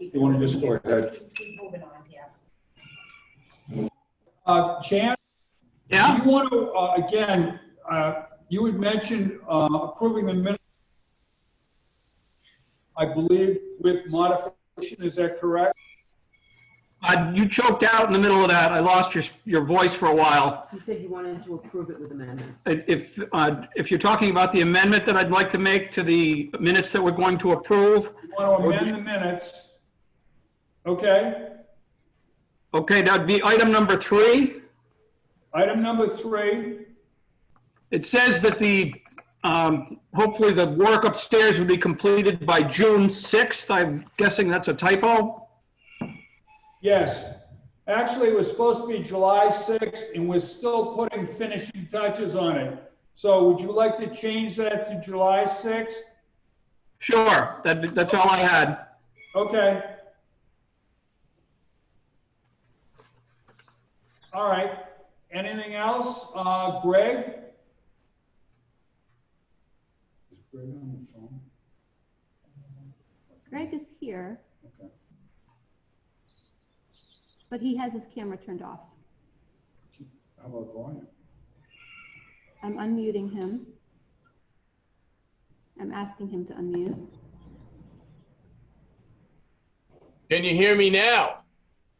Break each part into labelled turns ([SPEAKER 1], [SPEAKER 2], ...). [SPEAKER 1] You want to just go ahead?
[SPEAKER 2] Keep keep moving on here.
[SPEAKER 1] Uh, Jan?
[SPEAKER 3] Yeah.
[SPEAKER 1] You want to, uh, again, uh, you had mentioned, uh, approving the minutes. I believe with modification, is that correct?
[SPEAKER 3] Uh, you choked out in the middle of that. I lost your, your voice for a while.
[SPEAKER 4] He said you wanted to approve it with amendments.
[SPEAKER 3] If, uh, if you're talking about the amendment that I'd like to make to the minutes that we're going to approve,
[SPEAKER 1] You want to amend the minutes? Okay,
[SPEAKER 3] okay, that'd be item number three.
[SPEAKER 1] item number three,
[SPEAKER 3] It says that the, um, hopefully the work upstairs will be completed by June 6th. I'm guessing that's a typo.
[SPEAKER 1] yes. Actually, it was supposed to be July 6th, and we're still putting finishing touches on it. So would you like to change that to July 6th?
[SPEAKER 3] Sure, that, that's all I had.
[SPEAKER 1] Okay. All right, anything else? Uh, Greg? Is Greg on the phone?
[SPEAKER 5] Greg is here,
[SPEAKER 1] Okay.
[SPEAKER 5] but he has his camera turned off.
[SPEAKER 1] How about Brian?
[SPEAKER 5] I'm unmuting him. I'm asking him to unmute.
[SPEAKER 6] Can you hear me now?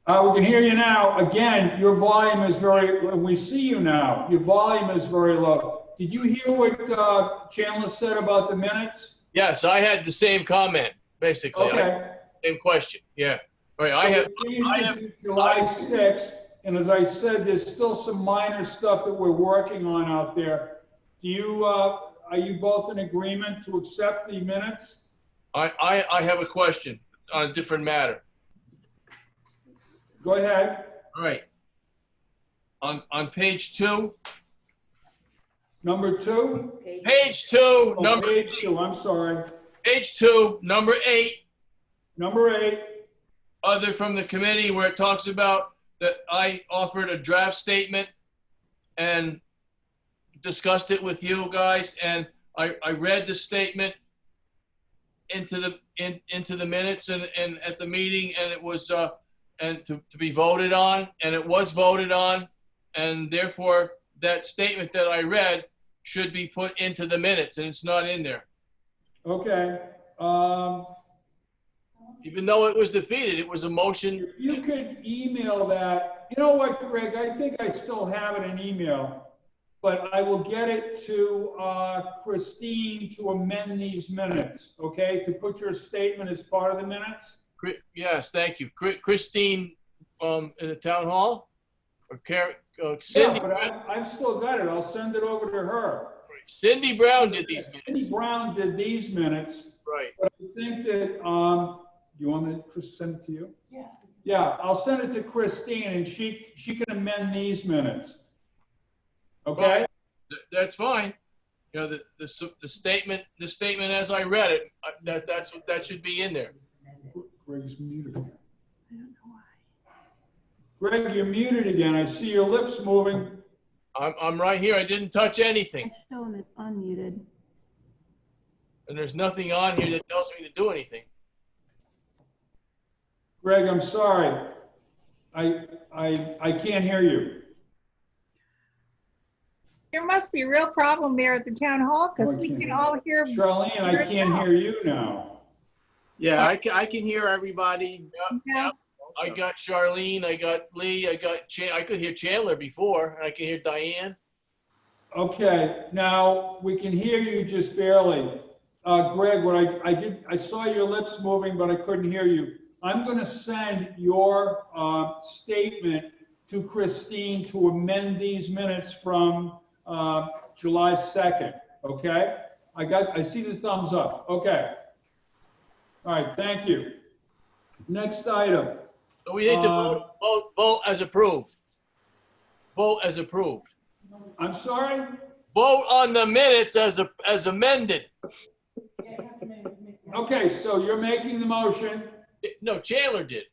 [SPEAKER 1] Uh, we can hear you now. Again, your volume is very, we see you now. Your volume is very low. Did you hear what, uh, Chandler said about the minutes?
[SPEAKER 6] Yes, I had the same comment, basically. I-
[SPEAKER 1] Okay.
[SPEAKER 6] Same question. Yeah. All right. I have. I have-
[SPEAKER 1] July 6th, and as I said, there's still some minor stuff that we're working on out there. Do you, uh, are you both in agreement to accept the minutes?
[SPEAKER 6] I, I, I have a question on a different matter.
[SPEAKER 1] Go ahead.
[SPEAKER 6] All right. On on page two,
[SPEAKER 1] Number two?
[SPEAKER 6] page two,
[SPEAKER 1] Oh,
[SPEAKER 6] number
[SPEAKER 1] Page two, I'm sorry.
[SPEAKER 6] page two, number eight,
[SPEAKER 1] Number eight,
[SPEAKER 6] other from the committee where it talks about that I offered a draft statement and discussed it with you guys and I, I read the statement into the in, into the minutes and, and at the meeting and it was uh, and to, to be voted on and it was voted on and therefore that statement that I read should be put into the minutes and it's not in there.
[SPEAKER 1] okay. Um,
[SPEAKER 6] Even though it was defeated, it was a motion.
[SPEAKER 1] If you could email that, you know what, Greg, I think I still have it in email, but I will get it to uh, Christine to amend these minutes, okay? To put your statement as part of the minutes?
[SPEAKER 6] Chri- Yes, thank you. Chri- Christine, um, in the town hall? Or Car- uh,
[SPEAKER 1] Yeah,
[SPEAKER 6] Cindy,
[SPEAKER 1] but I- I've still got it, I'll send it over to her.
[SPEAKER 6] Cindy Brown did these
[SPEAKER 1] Cindy
[SPEAKER 6] minutes,
[SPEAKER 1] Brown did these minutes,
[SPEAKER 6] right.
[SPEAKER 1] but I think that, um, you want me to Chris, send it to you?
[SPEAKER 2] Yeah.
[SPEAKER 1] Yeah, I'll send it to Christine and she, she can amend these minutes. Okay?
[SPEAKER 6] Th- That's fine. You know, the, the, s- the statement, the statement as I read it, uh, that, that's, what- that should be in there.
[SPEAKER 1] Greg's muted again. Greg, you're muted again. I see your lips moving.
[SPEAKER 6] I'm, I'm right here. I didn't touch
[SPEAKER 5] I
[SPEAKER 6] anything.
[SPEAKER 5] show him as unmuted.
[SPEAKER 6] And there's nothing on here that tells me to do anything.
[SPEAKER 1] Greg, I'm sorry. I, I, I can't hear you.
[SPEAKER 7] There must be a real problem there at the town hall because we can all hear.
[SPEAKER 1] Charlene, I can't hear you now.
[SPEAKER 8] Yeah, I can, I can hear everybody.
[SPEAKER 7] Yeah,
[SPEAKER 6] I got Charlene, I got Lee, I got Chan, I could hear Chandler before, and I can hear Diane.
[SPEAKER 1] Okay, now, we can hear you just barely. Uh, Greg, what I, I did, I saw your lips moving, but I couldn't hear you. I'm gonna send your, uh, statement to Christine to amend these minutes from, uh, July 2nd, okay? I got, I see the thumbs up, okay. All right, thank you. Next item,
[SPEAKER 6] So we need to
[SPEAKER 1] Uh,
[SPEAKER 6] vote, vote, vote as approved. Vote as approved.
[SPEAKER 1] I'm sorry?
[SPEAKER 6] Vote on the minutes as, a- as amended.
[SPEAKER 1] Okay, so you're making the motion,
[SPEAKER 6] No, Chandler did.